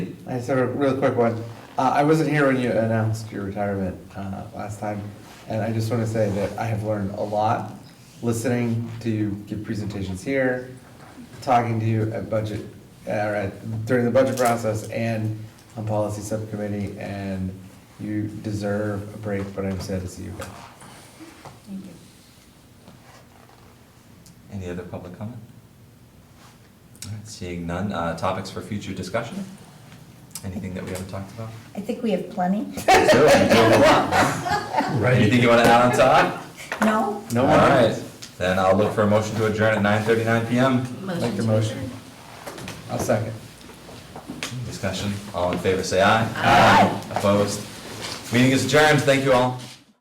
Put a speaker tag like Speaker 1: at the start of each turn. Speaker 1: I just have a real quick one. Uh, I wasn't here when you announced your retirement uh, last time, and I just want to say that I have learned a lot listening to you give presentations here, talking to you at budget, uh, or at- during the budget process and on policy subcommittee, and you deserve a break, but I'm sad to see you go.
Speaker 2: Thank you.
Speaker 3: Any other public comment? All right, Seeing none, uh, topics for future discussion? Anything that we haven't talked about?
Speaker 2: I think we have plenty.
Speaker 3: Sure, we do have a lot. Anything you want to add on top?
Speaker 2: No?
Speaker 1: No
Speaker 3: All
Speaker 1: one
Speaker 3: right,
Speaker 1: else?
Speaker 3: then I'll look for a motion to adjourn at nine thirty-nine PM.
Speaker 1: Make your motion. I'll second.
Speaker 3: Discussion, all in favor, say aye.
Speaker 2: Aye.
Speaker 3: Opposed? Meeting is adjourned, thank you all.